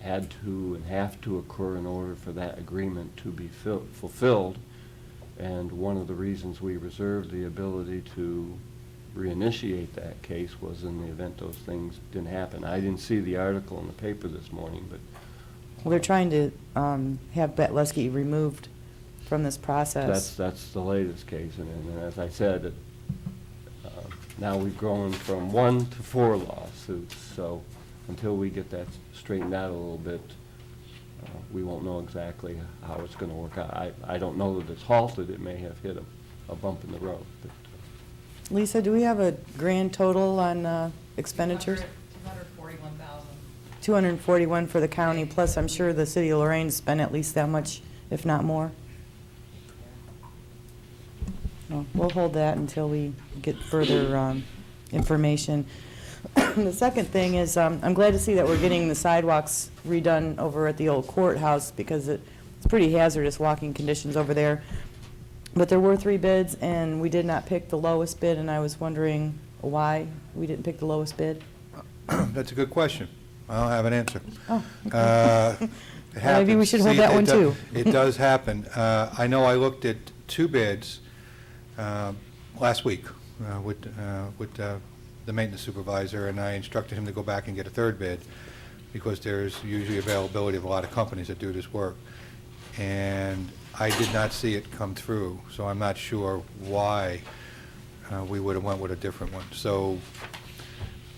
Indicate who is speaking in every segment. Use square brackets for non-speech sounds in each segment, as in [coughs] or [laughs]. Speaker 1: had to and have to occur in order for that agreement to be fil- fulfilled. And one of the reasons we reserved the ability to reinitiate that case was in the event those things didn't happen. I didn't see the article in the paper this morning, but
Speaker 2: Well, they're trying to um, have Betlesky removed from this
Speaker 1: That's,
Speaker 2: process.
Speaker 1: that's the latest case, and, and as I said, it, uh, now we've grown from one to four lawsuits, so until we get that straightened out a little bit, uh, we won't know exactly how it's gonna work out. I, I don't know that it's halted, it may have hit a, a bump in the road, but uh,
Speaker 2: Lisa, do we have a grand total on uh, expenditures?
Speaker 3: Two hundred forty-one thousand.
Speaker 2: 241 for the county, plus I'm sure the city of Lorraine spent at least that much, if not more. Well, We'll hold that until we get further um, information. [coughs] The second thing is, um, I'm glad to see that we're getting the sidewalks redone over at the old courthouse because it- it's pretty hazardous walking conditions over there. But there were three bids, and we did not pick the lowest bid, and I was wondering why we didn't pick the lowest bid.
Speaker 4: [clears throat] That's a good question. I don't have an answer.
Speaker 2: Oh, okay.
Speaker 4: Uh,
Speaker 2: [laughs]
Speaker 4: it
Speaker 2: Well, maybe we
Speaker 4: happens.
Speaker 2: should hold
Speaker 4: See,
Speaker 2: that
Speaker 4: it
Speaker 2: one,
Speaker 4: do-
Speaker 2: too.
Speaker 4: [laughs] It does happen. Uh, I know I looked at two bids uh, last week uh, with, uh, with uh, the maintenance supervisor, and I instructed him to go back and get a third bid, because there's usually availability of a lot of companies that do this work. And I did not see it come through, so I'm not sure why uh, we would have went with a different one. So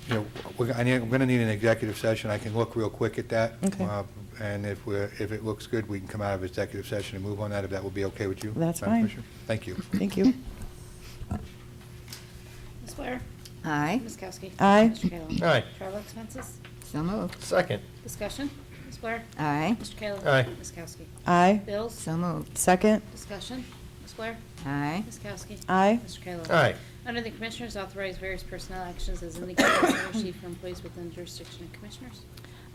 Speaker 4: you know, we're, I need, I'm gonna need an executive session, I can look real quick at that.
Speaker 2: Okay.
Speaker 4: Uh, And if we're, if it looks good, we can come out of executive session and move on that, if that would be okay with you?
Speaker 2: That's
Speaker 4: Madam
Speaker 2: fine.
Speaker 4: Commissioner? Thank you.
Speaker 2: Thank you.
Speaker 5: Ms. Blair?
Speaker 6: Aye.
Speaker 5: Ms. Kowski?
Speaker 2: Aye.
Speaker 5: Mr. Kayla?
Speaker 7: Aye.
Speaker 5: Travel expenses?
Speaker 6: So moved.
Speaker 7: Second.
Speaker 5: Discussion. Ms. Blair?
Speaker 6: Aye.
Speaker 5: Mr. Kayla?
Speaker 7: Aye.
Speaker 5: Ms. Kowski?
Speaker 2: Aye.
Speaker 5: Bills?
Speaker 6: So moved.
Speaker 2: Second.
Speaker 5: Discussion. Ms. Blair?
Speaker 6: Aye.
Speaker 5: Ms. Kowski?
Speaker 2: Aye.
Speaker 5: Mr. Kayla?
Speaker 7: Aye.
Speaker 5: Under the Commissioners, authorize various personnel actions as indicated in the summary sheet for employees within jurisdiction of Commissioners.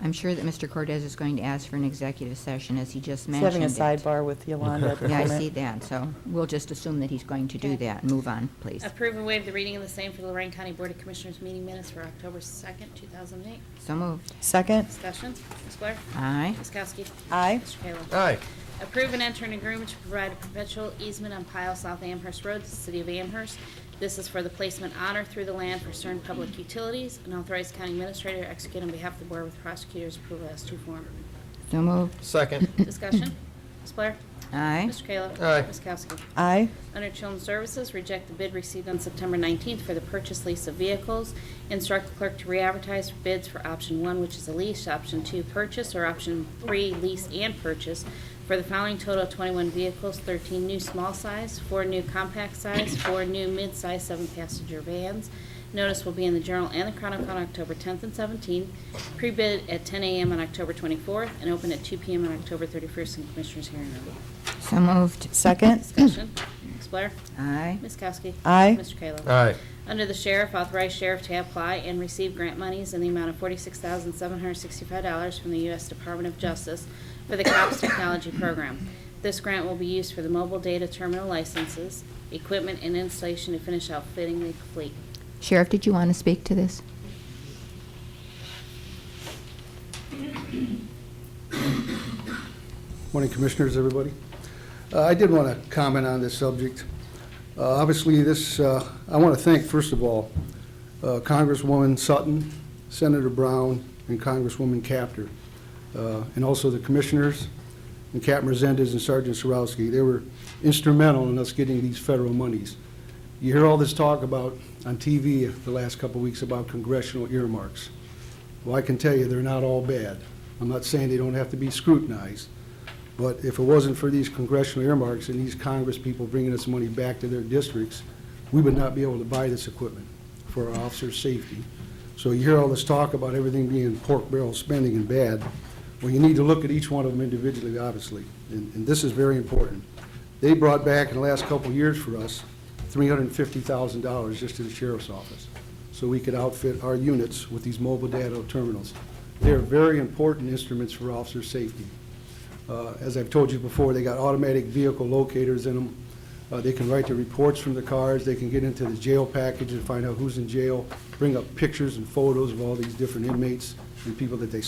Speaker 6: I'm sure that Mr. Cortez is going to ask for an executive session, as he just
Speaker 2: He's having
Speaker 6: mentioned.
Speaker 2: a
Speaker 6: it.
Speaker 2: sidebar with Yolanda at the
Speaker 6: [laughs] Yeah, I
Speaker 2: moment.
Speaker 6: see that, so we'll just assume that he's going to do
Speaker 5: Okay.
Speaker 6: that. Move on, please.
Speaker 5: Approve and waive the reading of the same for the Lorraine County Board of Commissioners meeting minutes for October 2nd, 2008.
Speaker 6: So moved.
Speaker 2: Second.
Speaker 5: Discussion. Ms. Blair?
Speaker 6: Aye.
Speaker 5: Ms. Kowski?
Speaker 2: Aye.
Speaker 5: Mr. Kayla?
Speaker 7: Aye.
Speaker 5: Approve and enter an agreement to provide a perpetual easement on Pile South Amherst Road to the City of Amherst. This is for the placement on or through the land for certain public utilities, and authorize county administrator to execute on behalf of the board with prosecutor's approval as to form.
Speaker 6: So moved.
Speaker 7: Second.
Speaker 5: [coughs] Discussion? Ms. Blair?
Speaker 6: Aye.
Speaker 5: Mr. Kayla?
Speaker 7: Aye.
Speaker 5: Ms. Kowski?
Speaker 2: Aye.
Speaker 5: Under Children's Services, reject the bid received on September 19th for the purchase lease of vehicles. Instruct the clerk to re-advertise for bids for option one, which is a lease, option two, purchase, or option three, lease and purchase for the following total of 21 vehicles, 13 new small size, four new compact size, four new mid-size seven-passenger vans. Notice will be in the Journal and the Chronicle on October 10th and 17th, pre-bid at 10 a.m. on October 24th, and open at 2 p.m. on October 31st in Commissioners' hearing room.
Speaker 6: So moved.
Speaker 2: Second.
Speaker 5: Discussion. Ms. Blair?
Speaker 6: Aye.
Speaker 5: Ms. Kowski?
Speaker 2: Aye.
Speaker 5: Mr. Kayla?
Speaker 7: Aye.
Speaker 5: Under the sheriff, authorize sheriff to apply and receive grant monies in the amount of forty-six thousand seven hundred sixty-five dollars from the U.S. Department of Justice for the COPS Technology Program. This grant will be used for the mobile data terminal licenses, equipment, and installation to finish outfitting the fleet.
Speaker 6: Sheriff, did you want to speak to this?
Speaker 8: Morning, Commissioners, everybody. Uh, I did want to comment on this subject. Uh, Obviously, this, uh, I want to thank, first of all, uh, Congresswoman Sutton, Senator Brown, and Congresswoman Capter, uh, and also the Commissioners, and Captain Resendez and Sergeant Sarowski. They were instrumental in us getting these federal monies. You hear all this talk about, on TV the last couple of weeks, about congressional earmarks. Well, I can tell you, they're not all bad. I'm not saying they don't have to be scrutinized, but if it wasn't for these congressional earmarks and these Congress people bringing us money back to their districts, we would not be able to buy this equipment for our officers' safety. So you hear all this talk about everything being pork barrel spending and bad. Well, you need to look at each one of them individually, obviously, and, and this is very important. They brought back in the last couple of years for us, three hundred and fifty thousand dollars just to the sheriff's office, so we could outfit our units with these mobile data terminals. They're very important instruments for officer safety. Uh, As I've told you before, they got automatic vehicle locators in them. Uh, They can write the reports from the cars, they can get into the jail package and find out who's in jail, bring up pictures and photos of all these different inmates and people that they